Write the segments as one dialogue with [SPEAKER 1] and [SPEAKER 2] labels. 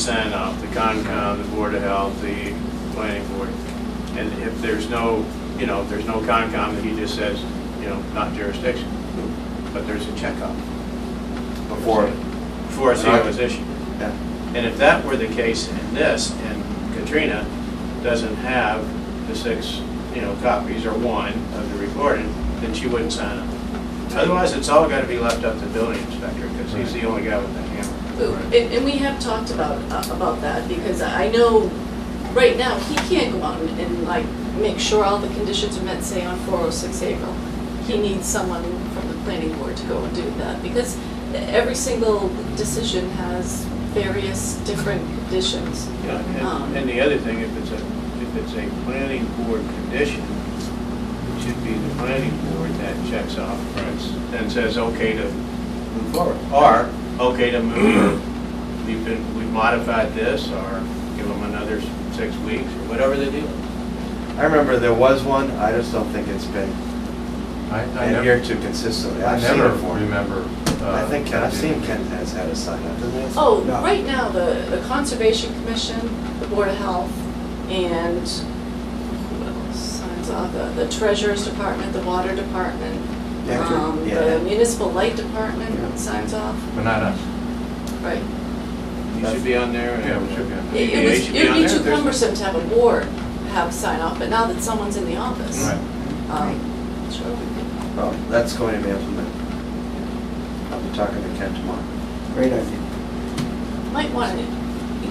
[SPEAKER 1] sign off, the Concom, the Board of Health, the Planning Board. And if there's no, you know, if there's no Concom, he just says, you know, not jurisdiction. But there's a checkup
[SPEAKER 2] before.
[SPEAKER 1] before a CO is issued.
[SPEAKER 2] Yeah.
[SPEAKER 1] And if that were the case in this, and Katrina doesn't have the six, you know, copies or one of the recording, then she wouldn't sign it. Otherwise, it's all gotta be left up to building inspector, because he's the only guy with the hammer.
[SPEAKER 3] And, and we have talked about, uh, about that, because I know, right now, he can't go out and, and like, make sure all the conditions are met, say, on four oh six April. He needs someone from the planning board to go and do that, because every single decision has various different conditions.
[SPEAKER 1] Yeah,
[SPEAKER 3] Um,
[SPEAKER 1] and, and the other thing, if it's a, if it's a planning board condition, it should be the planning board that checks off, then says, okay to move forward, or, okay to move, we've been, we've modified this, or give them another s- six weeks, or whatever they do.
[SPEAKER 2] I remember there was one, I just don't think it's been
[SPEAKER 4] I, I
[SPEAKER 2] adhered
[SPEAKER 4] never,
[SPEAKER 2] to consistently.
[SPEAKER 4] I
[SPEAKER 2] I've seen
[SPEAKER 4] never
[SPEAKER 2] it before.
[SPEAKER 4] remember. uh,
[SPEAKER 2] I think, Ken- I've
[SPEAKER 4] that
[SPEAKER 2] seen
[SPEAKER 4] being-
[SPEAKER 2] Ken has had a sign up, doesn't he?
[SPEAKER 3] Oh,
[SPEAKER 2] No.
[SPEAKER 3] right now, the, the Conservation Commission, the Board of Health, and who else signs off, the, the Treasurer's Department, the Water Department,
[SPEAKER 2] Yeah, true.
[SPEAKER 3] um,
[SPEAKER 2] Yeah.
[SPEAKER 3] the Municipal Light Department
[SPEAKER 2] Yeah.
[SPEAKER 3] signs off,
[SPEAKER 4] But not us.
[SPEAKER 3] right?
[SPEAKER 1] You should be on there. and-
[SPEAKER 4] Yeah, we should be on there.
[SPEAKER 3] It-
[SPEAKER 1] EPA
[SPEAKER 3] It was,
[SPEAKER 1] should
[SPEAKER 3] it'd
[SPEAKER 1] E on
[SPEAKER 3] be
[SPEAKER 1] there if
[SPEAKER 3] too
[SPEAKER 1] there's-
[SPEAKER 3] cumbersome to have a board have sign off, but now that someone's in the office.
[SPEAKER 4] Right.
[SPEAKER 3] Um, sure, we could-
[SPEAKER 2] Well, that's going to be implemented. I'll be talking to Ken tomorrow.
[SPEAKER 5] Great idea.
[SPEAKER 3] might wanna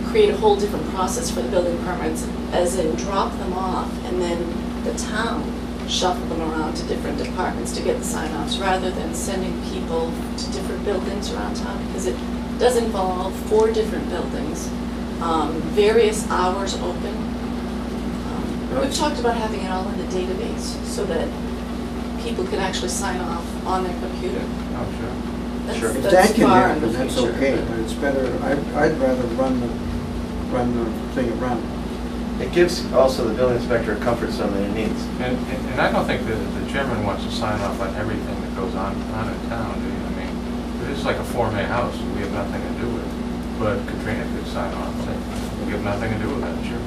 [SPEAKER 3] create a whole different process for the building permits, as in drop them off and then the town shuffle them around to different departments to get the sign offs, rather than sending people to different buildings around town, because it does involve four different buildings, um, various hours open. Um, We've talked about having it all in the database, so that people can actually sign off on their computer.
[SPEAKER 4] Oh, sure.
[SPEAKER 3] That's-
[SPEAKER 2] Sure.
[SPEAKER 5] If
[SPEAKER 3] That's
[SPEAKER 5] that can
[SPEAKER 3] far in the
[SPEAKER 5] happen,
[SPEAKER 3] future.
[SPEAKER 5] that's okay,
[SPEAKER 3] but-
[SPEAKER 5] but it's better, I'd, I'd rather run the, run the thing around.
[SPEAKER 2] It gives also the building inspector a comfort zone that he needs.
[SPEAKER 4] And, and- and I don't think that the chairman wants to sign off on everything that goes on, on in town, do you? I mean, it's like a Form A house, we have nothing to do with it. But Katrina could sign off, and say, we have nothing to do with that, sure.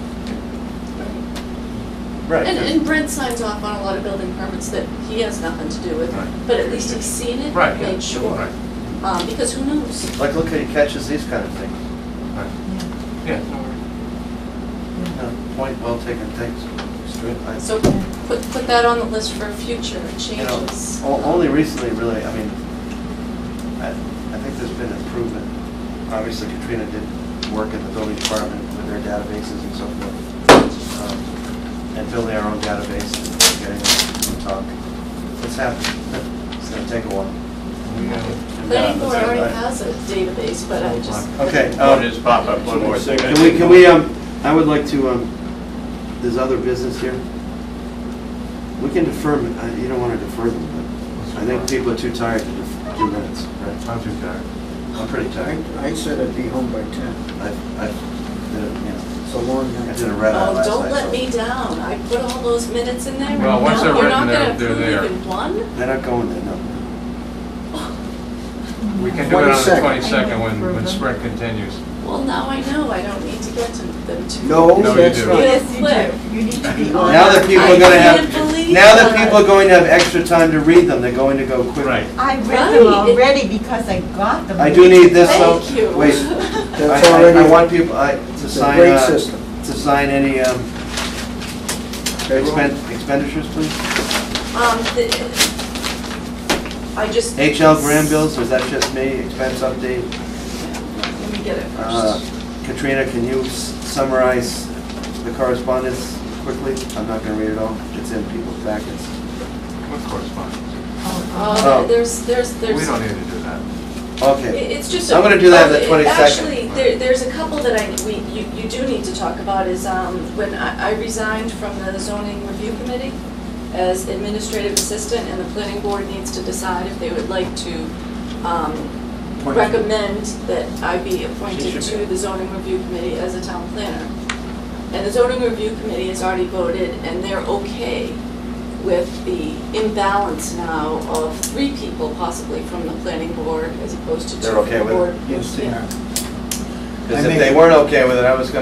[SPEAKER 2] Right.
[SPEAKER 3] And,
[SPEAKER 2] 'cause-
[SPEAKER 3] and Brent signs off on a lot of building permits that he has nothing to do with,
[SPEAKER 4] Right.
[SPEAKER 3] but at least he's seen it,
[SPEAKER 4] Right, yeah,
[SPEAKER 3] made sure.
[SPEAKER 4] right.
[SPEAKER 3] Um, because who knows?
[SPEAKER 2] Like, look, how he catches these kind of things.
[SPEAKER 4] Right.
[SPEAKER 6] Yeah.
[SPEAKER 4] Yeah, no worries.
[SPEAKER 2] Yeah, Point well taken, thanks. Straight line.
[SPEAKER 3] So put, put that on the list for future
[SPEAKER 2] You know,
[SPEAKER 3] changes.
[SPEAKER 2] o- Only recently, really, I mean, I, I think there's been improvement. Obviously Katrina did work in the building department with their databases and so forth. um, And building our own database and getting it to talk. It's happening. It's gonna take a while.
[SPEAKER 4] We got it.
[SPEAKER 3] Planning board
[SPEAKER 2] Yeah,
[SPEAKER 3] already
[SPEAKER 2] that's-
[SPEAKER 3] has a database, but I just.
[SPEAKER 2] Okay,
[SPEAKER 1] Oh,
[SPEAKER 2] um,
[SPEAKER 1] just pop up one more thing.
[SPEAKER 2] Can we, can we, um, I would like to, um, there's other business here. We can defer, them. I- you don't wanna defer them, but I think people are too tired to def- do minutes, right?
[SPEAKER 4] I'll do that.
[SPEAKER 2] I'm pretty
[SPEAKER 5] I,
[SPEAKER 2] tired.
[SPEAKER 5] I said I'd be home by ten,
[SPEAKER 2] I, I, did a- you know,
[SPEAKER 5] it's a long
[SPEAKER 2] I
[SPEAKER 5] night.
[SPEAKER 2] did a red eye
[SPEAKER 3] Oh,
[SPEAKER 2] last night.
[SPEAKER 3] don't let
[SPEAKER 2] so-
[SPEAKER 3] me down. I put all those minutes in there and
[SPEAKER 4] Well,
[SPEAKER 3] now
[SPEAKER 4] once they're
[SPEAKER 3] we're not
[SPEAKER 4] written,
[SPEAKER 3] gonna
[SPEAKER 4] they're-
[SPEAKER 3] approve
[SPEAKER 4] they're there.
[SPEAKER 3] even one?
[SPEAKER 2] They're not going there, no.
[SPEAKER 4] We can do it on the
[SPEAKER 5] 22nd.
[SPEAKER 4] twenty-second when, when
[SPEAKER 6] Mhm.
[SPEAKER 4] spring continues.
[SPEAKER 3] Well, now I know. I don't need to get to them too.
[SPEAKER 5] No,
[SPEAKER 4] No, you
[SPEAKER 5] that's
[SPEAKER 4] do.
[SPEAKER 5] not.
[SPEAKER 3] Yes.
[SPEAKER 5] It
[SPEAKER 6] Yes, you do. You need to be on.
[SPEAKER 2] Now that
[SPEAKER 6] it.
[SPEAKER 2] people are gonna
[SPEAKER 3] I can't
[SPEAKER 2] have,
[SPEAKER 3] believe
[SPEAKER 2] now that
[SPEAKER 3] that.
[SPEAKER 2] people are going to have extra time to read them, they're going to go quick.
[SPEAKER 4] Right.
[SPEAKER 6] I read them
[SPEAKER 3] Right.
[SPEAKER 6] already because I got them.
[SPEAKER 2] I do need this though.
[SPEAKER 3] Thank you. Um,
[SPEAKER 2] Wait. I,
[SPEAKER 5] That's
[SPEAKER 2] I- I
[SPEAKER 5] already-
[SPEAKER 2] want people, I, to
[SPEAKER 5] It's a
[SPEAKER 2] sign,
[SPEAKER 5] great
[SPEAKER 2] uh,
[SPEAKER 5] system.
[SPEAKER 2] to sign any, um, expend- expenditures, please?
[SPEAKER 3] Um, the- I just.
[SPEAKER 2] HL Graham bills, or is that just me, expense update?
[SPEAKER 3] Let me get it
[SPEAKER 2] Uh,
[SPEAKER 3] first.
[SPEAKER 2] Katrina, can you s- summarize the correspondence quickly? I'm not gonna read it all, it's in people's packets.
[SPEAKER 4] What correspondence?
[SPEAKER 6] Oh,
[SPEAKER 3] Uh,
[SPEAKER 2] oh.
[SPEAKER 3] there's, there's,
[SPEAKER 4] We
[SPEAKER 3] there's.
[SPEAKER 4] don't need to do that.
[SPEAKER 3] It-
[SPEAKER 2] Okay,
[SPEAKER 3] It's just.
[SPEAKER 2] I'm
[SPEAKER 3] a-
[SPEAKER 2] gonna do that on the
[SPEAKER 3] it-
[SPEAKER 2] 22nd.
[SPEAKER 3] Actually, there, there's a couple that I, we, you, you do need to talk about is, um, when I I resigned from the zoning review committee as administrative assistant, and the planning board needs to decide if they would like to, um,
[SPEAKER 2] Appoint you.
[SPEAKER 3] recommend that I be
[SPEAKER 2] She
[SPEAKER 3] appointed
[SPEAKER 2] should
[SPEAKER 3] to the zoning review committee as a town planner. And the zoning review committee has already voted, and they're okay with the imbalance now of three people possibly from the planning board as opposed to two
[SPEAKER 2] They're
[SPEAKER 3] from
[SPEAKER 2] okay
[SPEAKER 3] the
[SPEAKER 2] with it?
[SPEAKER 3] board.
[SPEAKER 5] Yes, they
[SPEAKER 3] Yeah.
[SPEAKER 5] are.
[SPEAKER 2] Because if
[SPEAKER 5] I make-
[SPEAKER 2] they weren't okay with it, I was gonna